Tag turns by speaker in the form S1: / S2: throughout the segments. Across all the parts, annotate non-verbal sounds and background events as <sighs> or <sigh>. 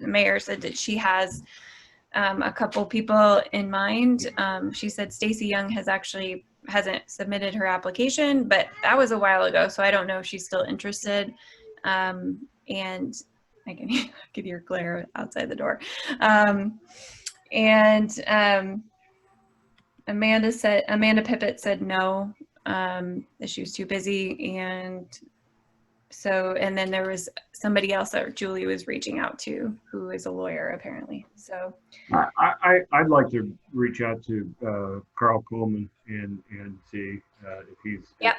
S1: the mayor said that she has um, a couple people in mind. Um, she said Stacy Young has actually hasn't submitted her application, but that was a while ago, so I don't know if she's still interested. Um, and I can <laughs> give your glare outside the door. Um, and um, Amanda said Amanda Pippett said no, um, that she was too busy, and so and then there was somebody else that Julie was reaching out to, who is a lawyer apparently. So
S2: I, I, I'd like to reach out to uh, Carl Coleman and, and see uh, if he's.
S1: Yep.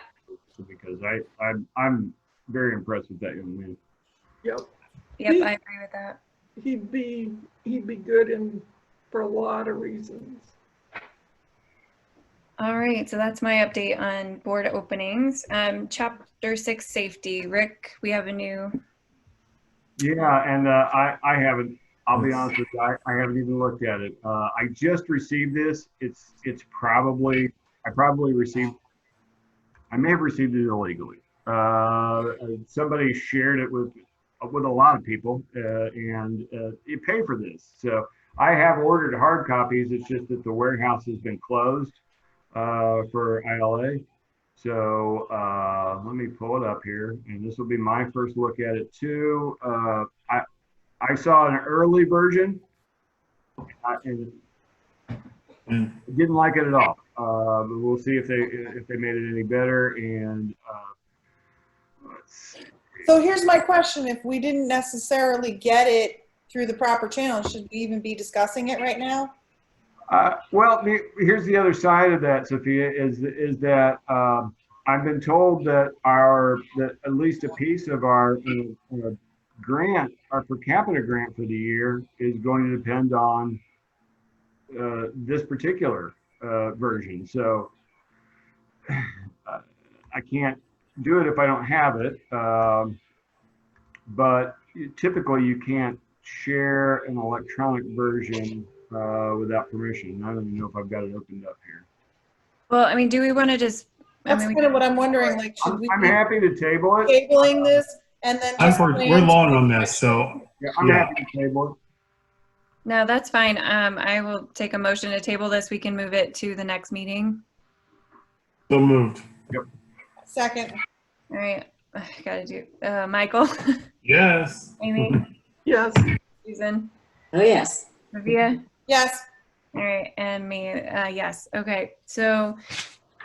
S2: Because I, I'm, I'm very impressed with that young man.
S3: Yep,
S1: yep,
S3: Me-
S1: I agree with that.
S3: he'd be, he'd be good in, for a lot of reasons.
S1: All right, so that's my update on board openings. Um, chapter six safety. Rick, we have a new
S2: Yeah, and uh, I, I haven't, I'll be honest with you, I, I haven't even looked at it. Uh, I just received this. It's, it's probably, I probably received, I may have received it illegally. Uh, somebody shared it with, with a lot of people, uh, and, uh, you pay for this. So I have ordered hard copies. It's just that the warehouse has been closed, uh, for ILA. So uh, let me pull it up here, and this will be my first look at it too. Uh, I I saw an early version, I, and
S4: Mm.
S2: didn't like it at all. Uh, but we'll see if they if they made it any better. And uh, let's see.
S5: So here's my question, if we didn't necessarily get it through the proper channel, should we even be discussing it right now?
S2: Uh, well, the, here's the other side of that, Sophia, is is that um, I've been told that our that at least a piece of our uh, uh, grant, our per capita grant for the year, is going to depend on uh, this particular uh, version. So <sighs> uh, I can't do it if I don't have it. Um, but typically, you can't share an electronic version uh, without permission. I don't even know if I've got it opened up here.
S1: Well, I mean, do we want to just? I
S5: That's
S1: mean, we-
S5: kind of what I'm wondering, like, should
S2: I'm,
S5: we
S2: I'm
S5: be
S2: happy to table it.
S5: tabling this and then?
S4: I'm
S5: just
S4: for,
S5: plan-
S4: we're long on this, so
S2: Yeah, I'm
S4: Yeah.
S2: happy to table
S1: No, that's fine. Um, I will take a motion to table this. We can move it to the next meeting.
S4: so moved.
S5: Second,
S1: All right, <sighs> Ugh, gotta do, uh, Michael, <laughs>
S4: Yes.
S5: <laughs>
S1: Amy,
S3: Yes,
S1: Susan,
S6: Oh, yes.
S1: Livia,
S5: yes,
S1: all right, and me, uh, yes. Okay, so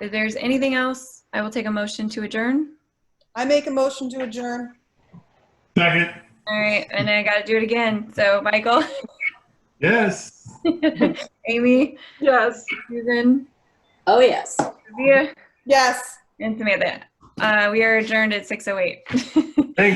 S1: if there's anything else, I will take a motion to adjourn.
S5: I make a motion to adjourn.
S4: Second.
S1: All right, and I gotta do it again. So Michael, <laughs>
S4: Yes.
S1: Amy,
S3: yes.
S1: Susan,
S6: Oh, yes.
S1: Livia,
S5: Yes.
S1: and Samantha. Uh, we are adjourned at six oh eight. <laughs>